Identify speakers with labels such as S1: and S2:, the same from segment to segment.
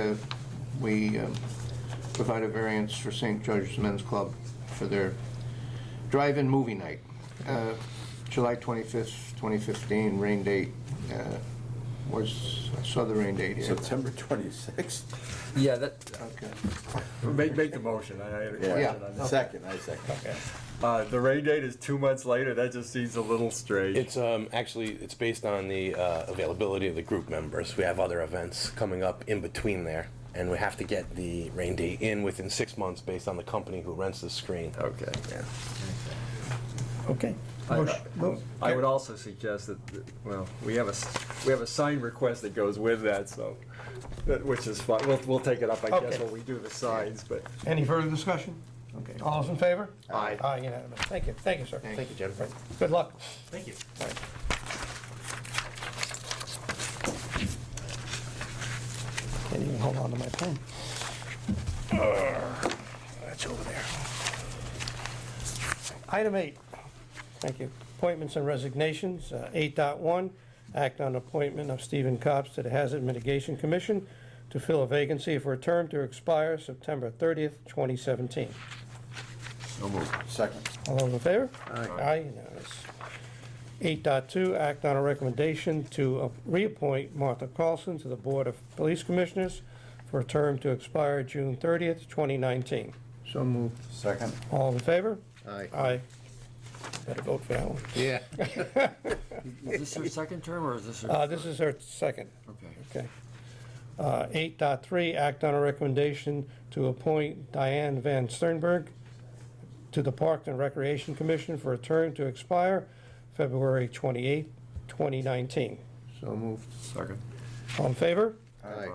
S1: Uh, We um, provide a variance for St. George's Men's Club for their drive-in movie night, Uh, July 25th, 2015, rain date. uh, Was, I saw the rain date here.
S2: September 26th?
S3: Yeah, that,
S1: Okay.
S3: make, make the motion, I I had a question on
S1: Yeah.
S3: that.
S2: Second, I second.
S3: Uh, the rain date is two months later, that just seems a little strange.
S4: It's um, actually it's based on the uh, availability of the group members. We have other events coming up in between there, and we have to get the rain date in within six months based on the company who rents the screen.
S3: Okay.
S4: Yeah.
S5: Okay.
S3: I-
S5: Motion- mo-
S3: I would also suggest that, that- well, we have a, s- we have a sign request that goes with that, so, that- which is fine, we'll, we'll take it up, I guess,
S5: Okay.
S3: when we do the signs, but.
S5: Any further discussion? Okay, all those in favor?
S3: Aye.
S5: Aye, unanimous. Thank you, thank you, sir.
S1: Thank you, Jennifer.
S5: Good luck.
S4: Thank you.
S5: Can't even hold on to my pen.
S4: Uh, That's over there.
S5: Item eight, thank you. Appointments and resignations, Uh, 8.1, act on appointment of Stephen Copps to the Hazard Mitigation Commission to fill a vacancy for a term to expire September 30th, 2017.
S2: Second.
S5: All those in favor? Aye. Aye, unanimous. 8.2, act on a recommendation to uh, reappoint Martha Carlson to the Board of Police Commissioners for a term to expire June 30th, 2019.
S1: So moved.
S2: Second.
S5: All in favor?
S1: Aye.
S5: Aye. Better vote for that one.
S1: Yeah.
S6: Is this her second term, or is this her?
S5: Uh, This is her second,
S6: Okay.
S5: okay. Uh, 8.3, act on a recommendation to appoint Diane Van Sternberg to the Park and Recreation Commission for a term to expire February 28th, 2019.
S1: So moved.
S3: Second.
S5: All in favor?
S1: Aye.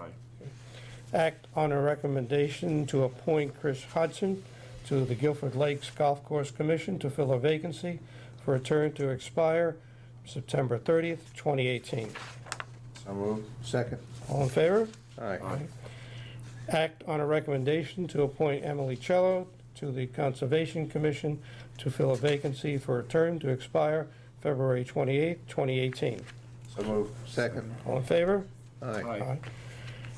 S5: Act on a recommendation to appoint Chris Hudson to the Guilford Lakes Golf Course Commission to fill a vacancy for a term to expire September 30th, 2018.
S2: So moved.
S1: Second.
S5: All in favor?
S1: Aye.
S5: Act on a recommendation to appoint Emily Cello to the Conservation Commission to fill a vacancy for a term to expire February 28th, 2018.
S2: So moved.
S1: Second.
S5: All in favor?
S1: Aye.
S5: Aye.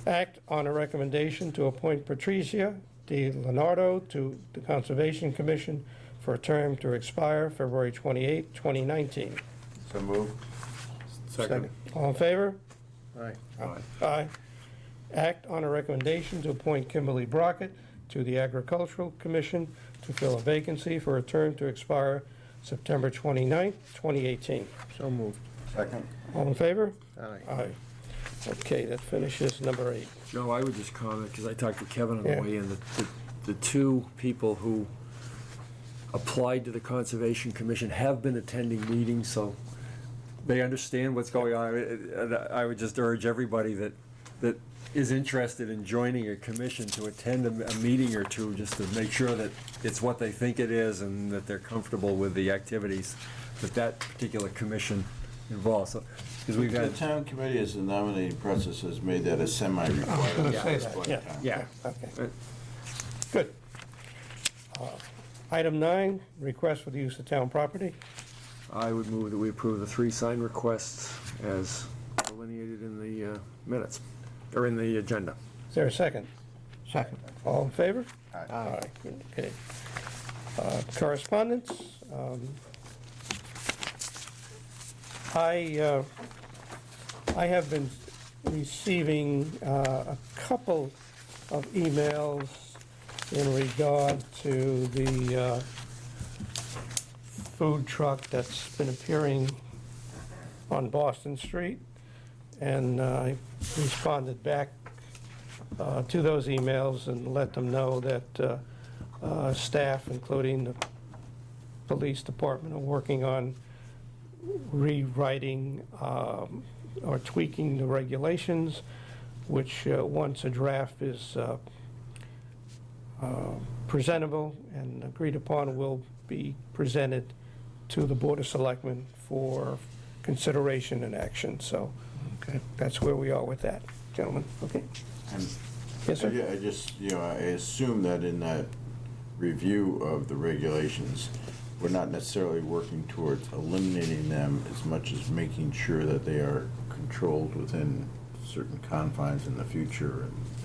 S5: Act on a recommendation to appoint Patricia Di Leonardo to the Conservation Commission for a term to expire February 28, 2019.
S2: So moved.
S1: Second.
S5: All in favor?
S1: Aye.
S5: Aye. Act on a recommendation to appoint Kimberly Brockett to the Agricultural Commission to fill a vacancy for a term to expire September 29, 2018.
S1: So moved.
S2: Second.
S5: All in favor?
S1: Aye.
S5: Aye. Okay, that finishes number eight.
S6: Joe, I would just comment, because I talked to Kevin on
S5: Yeah.
S6: the way in, that the- the two people who applied to the Conservation Commission have been attending meetings, so they understand what's going on. And I would just urge everybody that, that is interested in joining a commission to attend a, a meeting or two, just to make sure that it's what they think it is and that they're comfortable with the activities that that particular commission involves, so, because we've
S2: The
S6: had.
S2: town committee is the nominating process has made that a semi-required.
S5: Yeah.
S2: at this point in
S5: Yeah.
S2: time.
S6: Yeah.
S5: Okay. Good. Uh, Item nine, request for the use of town property.
S6: I would move that we approve the three sign requests as delineated in the uh, minutes, or in the agenda.
S5: Is there a second?
S1: Second.
S5: All in favor?
S2: Aye.
S5: Okay. Uh, Correspondence. um, I, uh, I have been receiving uh, a couple of emails in regard to the uh, food truck that's been appearing on Boston Street, and uh, I responded back uh, to those emails and let them know that uh, uh, staff, including the police department, are working on rewriting um, or tweaking the regulations, which, uh, once a draft is uh, uh, presentable and agreed upon, will be presented to the Board of Selectmen for consideration and action. So
S1: Okay.
S5: that's where we are with that, gentlemen. Okay?
S2: And
S5: Yes, sir?
S2: I ju- I just, you know, I assume that in that review of the regulations, we're not necessarily working towards eliminating them as much as making sure that they are controlled within certain confines in the future and